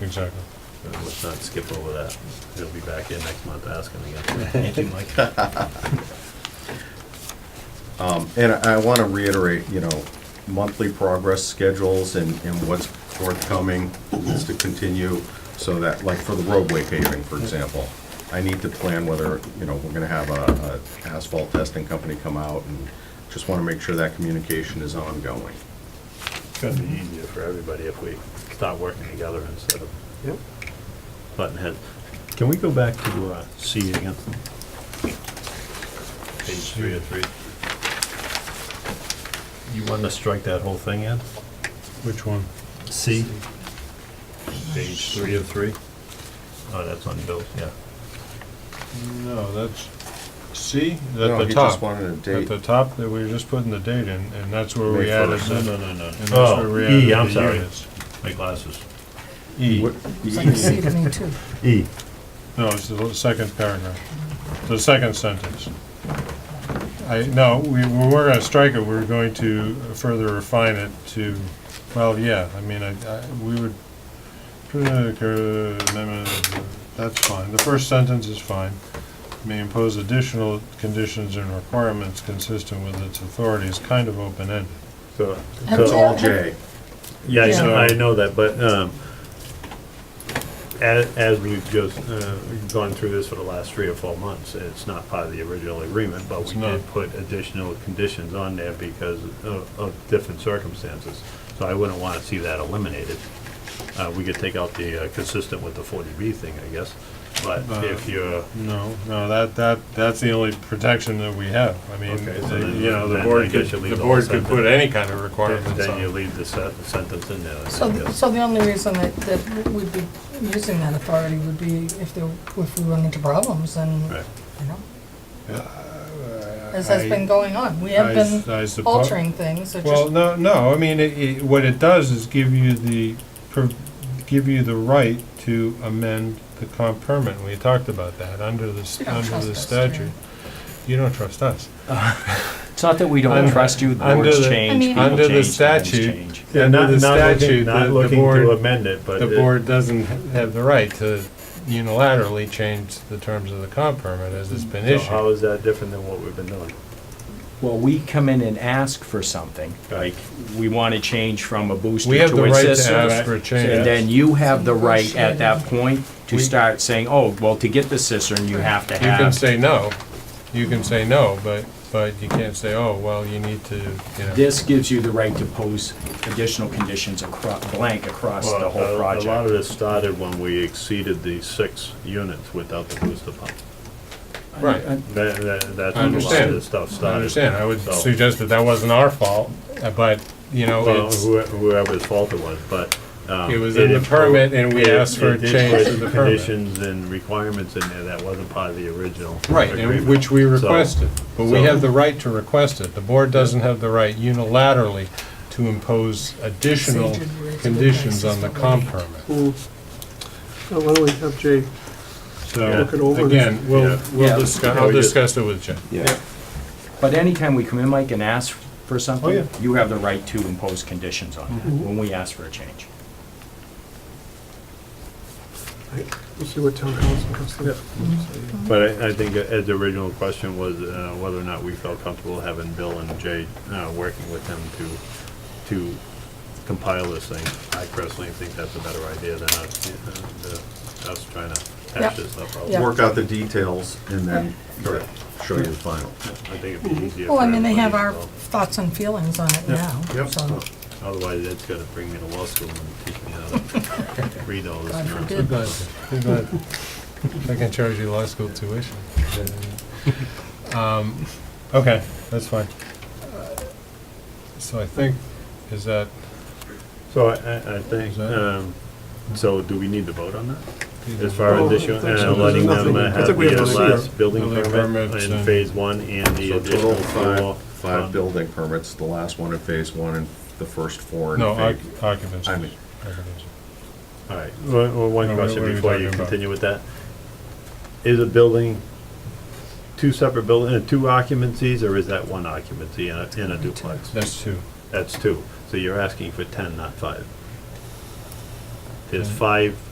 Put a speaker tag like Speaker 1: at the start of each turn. Speaker 1: Exactly.
Speaker 2: Let's not skip over that. They'll be back in next month asking again.
Speaker 3: Thank you, Mike.
Speaker 4: Um, And I want to reiterate, you know, monthly progress schedules and, and what's forthcoming is to continue so that, like for the roadway paving, for example, I need to plan whether, you know, we're going to have a a asphalt testing company come out and just want to make sure that communication is ongoing.
Speaker 2: It's gonna be easier for everybody if we start working together instead of
Speaker 5: Yep.
Speaker 2: button heads. Can we go back to uh, C again? Page three of three. You want to strike that whole thing in?
Speaker 1: Which one?
Speaker 2: C? Page three of three? Oh, that's on Bill's, yeah.
Speaker 1: No, that's, C at
Speaker 4: No,
Speaker 1: the
Speaker 4: he just
Speaker 1: top.
Speaker 4: wanted a
Speaker 1: At the
Speaker 4: date.
Speaker 1: top, that we were just putting the date in, and that's where
Speaker 4: May
Speaker 1: we added
Speaker 4: first.
Speaker 1: the, and
Speaker 2: no, no, no.
Speaker 1: that's where
Speaker 2: Oh,
Speaker 1: we
Speaker 2: E,
Speaker 1: added
Speaker 2: I'm
Speaker 1: the
Speaker 2: sorry.
Speaker 1: units.
Speaker 2: My glasses.
Speaker 1: E,
Speaker 4: What-
Speaker 6: It's like C to me too.
Speaker 2: E.
Speaker 1: no, it's the second paragraph, the second sentence. I, no, we, we were gonna strike it, we were going to further refine it to, well, yeah, I mean, I, I, we would, that's fine, the first sentence is fine. May impose additional conditions and requirements consistent with its authority is kind of open-ended.
Speaker 2: So.
Speaker 4: That's all J.
Speaker 2: Yeah, I know,
Speaker 1: Yeah.
Speaker 2: I know that, but, um, as, as we've just, uh, gone through this for the last three or four months, it's not part of the original agreement, but
Speaker 1: It's
Speaker 2: we did
Speaker 1: not.
Speaker 2: put additional conditions on there because of, of different circumstances. So I wouldn't wanna see that eliminated. Uh, we could take out the uh, consistent with the forty B thing, I guess, but
Speaker 1: Uh,
Speaker 2: if you're,
Speaker 1: No, no, that, that, that's the only protection that we have. I mean,
Speaker 2: Okay, so
Speaker 1: the-
Speaker 2: then-
Speaker 1: you know, the
Speaker 2: then I
Speaker 1: board could,
Speaker 2: guess you leave
Speaker 1: the
Speaker 2: the
Speaker 1: board
Speaker 2: whole
Speaker 1: could put
Speaker 2: sentence.
Speaker 1: any kind of requirements
Speaker 2: then you
Speaker 1: on.
Speaker 2: leave the sen- sentence in there. I
Speaker 6: So, th-
Speaker 2: guess.
Speaker 6: so the only reason that, that we'd be using that authority would be if there, if we run into problems and,
Speaker 2: Right.
Speaker 6: you know, as has been
Speaker 1: Uh, I-
Speaker 6: going on. We have
Speaker 1: I s-
Speaker 6: been
Speaker 1: I suppo-
Speaker 6: altering things, it
Speaker 1: Well,
Speaker 6: just,
Speaker 1: no, no, I mean, it, it, what it does is give you the, per- give you the right to amend the comp permit. We talked about that under the, s-
Speaker 6: You don't
Speaker 1: under
Speaker 6: trust
Speaker 1: the
Speaker 6: us, do you?
Speaker 1: statute. You don't trust us.
Speaker 3: It's not that we don't
Speaker 1: Under-
Speaker 3: trust you, the
Speaker 1: under
Speaker 3: boards
Speaker 1: the-
Speaker 3: change, people
Speaker 1: Under the
Speaker 3: change, things
Speaker 1: statute,
Speaker 3: change.
Speaker 2: Yeah, not,
Speaker 1: under the
Speaker 2: not
Speaker 1: statute,
Speaker 2: looking,
Speaker 1: the
Speaker 2: not
Speaker 1: the
Speaker 2: looking to
Speaker 1: board,
Speaker 2: amend it, but.
Speaker 1: the
Speaker 2: it-
Speaker 1: board doesn't have the right to unilaterally change the terms of the comp permit as it's been
Speaker 2: So
Speaker 1: issued.
Speaker 2: how is that different than what we've been doing?
Speaker 3: Well, we come in and ask for something,
Speaker 2: Right.
Speaker 3: like, we want to change from a booster
Speaker 1: We have the
Speaker 3: to a
Speaker 1: right to
Speaker 3: system.
Speaker 1: ask for a change.
Speaker 3: And then you have the right
Speaker 6: Negotiate.
Speaker 3: at that point to
Speaker 1: We-
Speaker 3: start saying, oh, well, to get the cistern, you have to
Speaker 1: You can
Speaker 3: have
Speaker 1: say no, you can say no, but, but you can't say, oh, well, you need to, you know.
Speaker 3: This gives you the right to pose additional conditions across, blank across the
Speaker 2: Well, a-
Speaker 1: uh,
Speaker 3: whole
Speaker 2: A lot
Speaker 3: project.
Speaker 2: of this started when we exceeded the six units without the booster pump.
Speaker 1: Right,
Speaker 2: That, that, that's
Speaker 1: I
Speaker 2: when a lot of
Speaker 1: understand.
Speaker 2: this stuff
Speaker 1: I
Speaker 2: started.
Speaker 1: understand, I would
Speaker 2: So-
Speaker 1: suggest that that wasn't our fault, uh, but, you know,
Speaker 2: Well,
Speaker 1: it's,
Speaker 2: whoe- whoever's fault it was, but. um,
Speaker 1: It was in the
Speaker 2: impo-
Speaker 1: permit and we
Speaker 2: it-
Speaker 1: asked for a
Speaker 2: it did put
Speaker 1: change to the permit.
Speaker 2: Conditions and requirements in there that wasn't part of the original.
Speaker 1: right, and
Speaker 2: agreement.
Speaker 1: which we
Speaker 2: So-
Speaker 1: requested. But we
Speaker 2: so-
Speaker 1: have the right to request it, the board doesn't have the right unilaterally to impose additional
Speaker 6: Procedure rules of
Speaker 1: conditions on the
Speaker 6: advice is
Speaker 1: comp
Speaker 6: what
Speaker 1: permit.
Speaker 5: Well, Why don't we have Jay look it
Speaker 1: So,
Speaker 5: over?
Speaker 1: again, we'll,
Speaker 2: Yeah.
Speaker 3: Yeah.
Speaker 1: we'll discuss,
Speaker 2: Yeah,
Speaker 1: I'll
Speaker 2: we just-
Speaker 1: discuss it with Jim.
Speaker 4: Yeah.
Speaker 3: But anytime we come in, Mike, and ask for
Speaker 1: Oh, yeah. Mm-hmm.
Speaker 3: something, you have the right to impose conditions on that, when we ask for a change.
Speaker 5: We'll see what town council comes to.
Speaker 2: But I, I think Ed's original question was uh, whether or not we felt comfortable having Bill and Jay, uh, working with them to, to compile this thing. I personally think that's a better idea than us, uh, the- us trying to hash
Speaker 6: Yep.
Speaker 2: this stuff out.
Speaker 6: Yeah.
Speaker 4: Work out the details and then show you the final.
Speaker 2: I think it'd be easier.
Speaker 6: Mhm. well, I
Speaker 2: for
Speaker 6: mean, they have our
Speaker 2: everybody
Speaker 6: thoughts and feelings on it now,
Speaker 2: Yep.
Speaker 6: so,
Speaker 2: involved. Otherwise, Ed's gotta bring me to law school and teach me how to read all this
Speaker 6: God
Speaker 2: nonsense.
Speaker 6: forbid.
Speaker 1: But but I can charge you law school tuition. Um, Okay, that's fine. So I think, is that,
Speaker 2: So I, I- I think,
Speaker 1: Is that-
Speaker 2: um, so do we need to vote on that? As
Speaker 1: either-
Speaker 2: far as
Speaker 5: Well,
Speaker 2: this,
Speaker 5: I think
Speaker 2: uh,
Speaker 5: so.
Speaker 2: letting them
Speaker 5: Nothing. I
Speaker 2: uh, have
Speaker 5: think we
Speaker 2: the
Speaker 5: have
Speaker 2: uh,
Speaker 5: to see
Speaker 2: last building
Speaker 1: Building
Speaker 2: permit
Speaker 1: permits
Speaker 2: in
Speaker 1: and-
Speaker 2: phase one and the
Speaker 4: So total
Speaker 2: additional
Speaker 4: five,
Speaker 2: four.
Speaker 4: five
Speaker 2: um,
Speaker 4: building permits, the last one in phase one and the first four in
Speaker 1: no,
Speaker 4: phase.
Speaker 1: oc- occupancy.
Speaker 4: I mean-
Speaker 1: Occupancy.
Speaker 2: All right, one- one-
Speaker 1: No,
Speaker 2: one
Speaker 1: what
Speaker 2: question
Speaker 1: are we
Speaker 2: before
Speaker 1: talking
Speaker 2: you
Speaker 1: about?
Speaker 2: continue with that. Is a building, two separate building, two occupancies, or is that one occupancy in a, in a duplex?
Speaker 1: That's two.
Speaker 2: That's two, so you're asking for ten, not five. There's five